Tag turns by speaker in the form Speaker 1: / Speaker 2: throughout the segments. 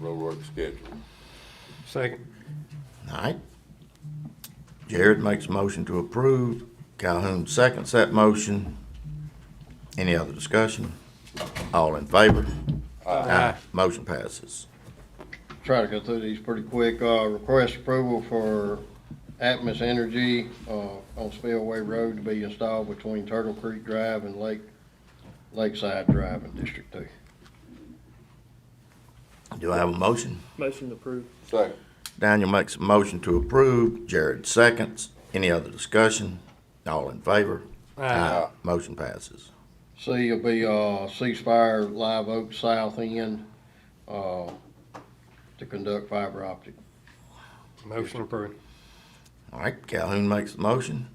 Speaker 1: road work schedule.
Speaker 2: Second.
Speaker 3: All right. Jared makes a motion to approve. Calhoun seconds that motion. Any other discussion? All in favor? Aye. Motion passes.
Speaker 4: try to go through these pretty quick. Uh, request approval for Atmos Energy, uh, on Spillway Road to be installed between Turtle Creek Drive and Lake, Lakeside Drive in District Two.
Speaker 3: Do I have a motion?
Speaker 5: Motion to approve.
Speaker 1: Second.
Speaker 3: Daniel makes a motion to approve. Jared seconds. Any other discussion? All in favor? Aye. Motion passes.
Speaker 4: C will be, uh, ceasefire Live Oak South End, uh, to conduct fiber optic.
Speaker 2: Motion approved.
Speaker 3: All right, Calhoun makes the motion.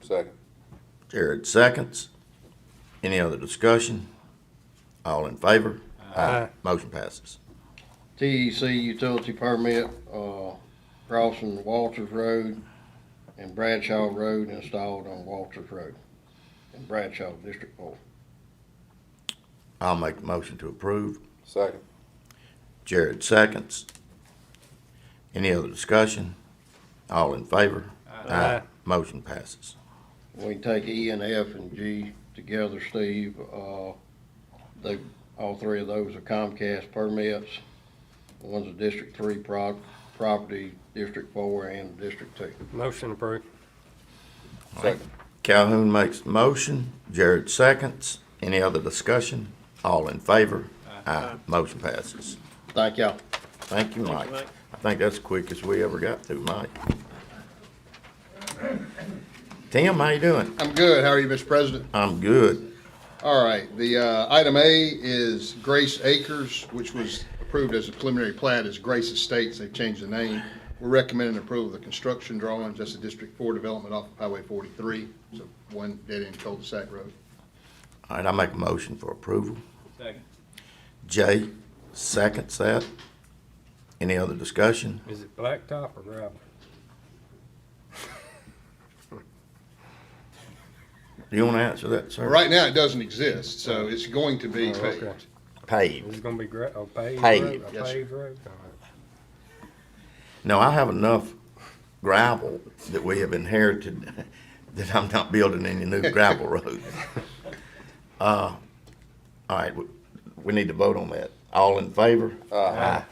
Speaker 1: Second.
Speaker 3: Jared seconds. Any other discussion? All in favor?
Speaker 2: Aye.
Speaker 3: Motion passes.
Speaker 4: TEC E utility permit, uh, crossing Walters Road and Bradshaw Road installed on Walters Road in Bradshaw District Four.
Speaker 3: I'll make the motion to approve.
Speaker 1: Second.
Speaker 3: Jared seconds. Any other discussion? All in favor?
Speaker 2: Aye.
Speaker 3: Motion passes.
Speaker 4: We can take E and F and G together, Steve. Uh, they, all three of those are Comcast permits. One's a District Three prop, property, District Four and District Two.
Speaker 2: Motion approved.
Speaker 1: Second.
Speaker 3: Calhoun makes the motion. Jared seconds. Any other discussion? All in favor? Aye. Motion passes.
Speaker 4: Thank y'all.
Speaker 3: Thank you, Mike.
Speaker 5: Mike.
Speaker 3: I think that's the quickest we ever got through, Mike. Tim, how you doing?
Speaker 6: I'm good. How are you, Mr. President?
Speaker 3: I'm good.
Speaker 6: All right, the, uh, item A is Grace Acres, which was approved as a preliminary plat as Grace Estates. They've changed the name. We're recommending approval of the construction drawings. That's a District Four development off of Highway forty-three, so one dead-end cul-de-sac road.
Speaker 3: All right, I make a motion for approval.
Speaker 5: Second.
Speaker 3: Jay seconds that. Any other discussion?
Speaker 2: Is it blacktop or gravel?
Speaker 3: Do you want to answer that, sir?
Speaker 6: Right now, it doesn't exist, so it's going to be
Speaker 2: Oh, okay.
Speaker 6: paved.
Speaker 2: Is
Speaker 3: Paved.
Speaker 2: it gonna be gra, a paved
Speaker 3: Paved,
Speaker 2: road? A
Speaker 6: yes, sir.
Speaker 2: paved road? All right.
Speaker 3: No, I have enough gravel that we have inherited that I'm not building any new gravel roads. Uh, all right, we, we need to vote on that. All in favor? Aye.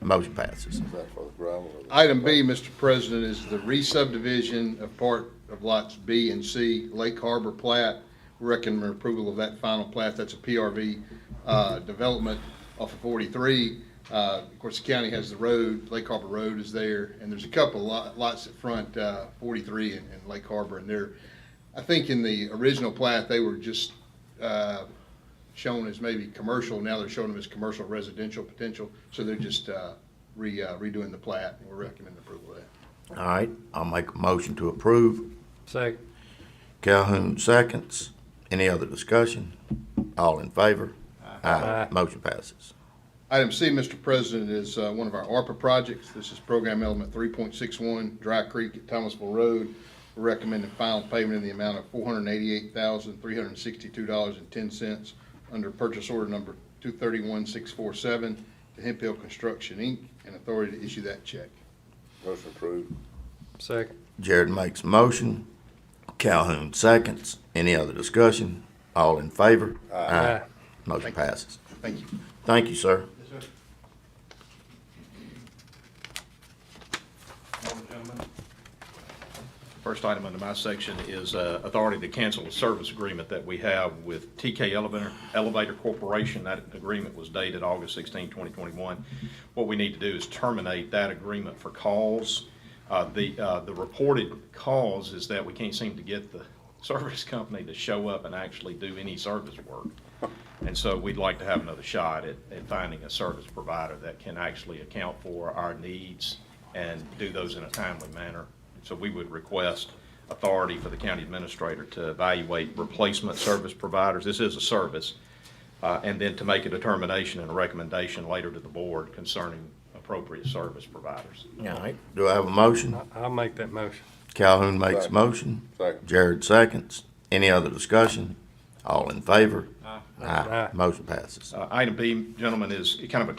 Speaker 3: Motion passes.
Speaker 1: Is that for the gravel or the?
Speaker 6: Item B, Mr. President, is the re-subdivision of part of lots B and C, Lake Harbor plat. Recommend approval of that final plat. That's a PRV uh, development off of 43. Uh, Of course, the county has the road, Lake Harbor Road is there, and there's a couple lot- lots at front, uh, 43 and and Lake Harbor, and they're, I think in the original plat, they were just uh, shown as maybe commercial, now they're showing them as commercial residential potential, so they're just uh, re- uh, redoing the plat, and we're recommending approval of that.
Speaker 3: All right, I'll make a motion to approve.
Speaker 2: Second.
Speaker 3: Calhoun seconds. Any other discussion? All in favor? Aye. Motion passes.
Speaker 6: Item C, Mr. President, is uh, one of our ARPA projects. This is Program Element 3.61, Dry Creek at Thomasville Road. We're recommending final payment in the amount of $488,362.10 under purchase order number 231647 to Hemp Hill Construction, Inc., and authority to issue that check.
Speaker 1: Motion approved.
Speaker 2: Second.
Speaker 3: Jared makes a motion. Calhoun seconds. Any other discussion? All in favor?
Speaker 2: Aye.
Speaker 3: Motion passes.
Speaker 6: Thank you.
Speaker 3: Thank you, sir.
Speaker 7: First item under my section is uh, authority to cancel a service agreement that we have with TK Elevator- Elevator Corporation. That agreement was dated August 16, 2021. What we need to do is terminate that agreement for cause. Uh, The uh, the reported cause is that we can't seem to get the service company to show up and actually do any service work. And so we'd like to have another shot at, at finding a service provider that can actually account for our needs and do those in a timely manner. So we would request authority for the county administrator to evaluate replacement service providers. This is a service. uh, and then to make a determination and a recommendation later to the board concerning appropriate service providers.
Speaker 3: All right, do I have a motion?
Speaker 2: I- I'll make that motion.
Speaker 3: Calhoun makes a
Speaker 1: Second.
Speaker 3: motion.
Speaker 1: Second.
Speaker 3: Jared seconds. Any other discussion? All in favor?
Speaker 2: Aye.
Speaker 3: Motion passes.
Speaker 7: Uh, Item B, gentlemen, is kind of a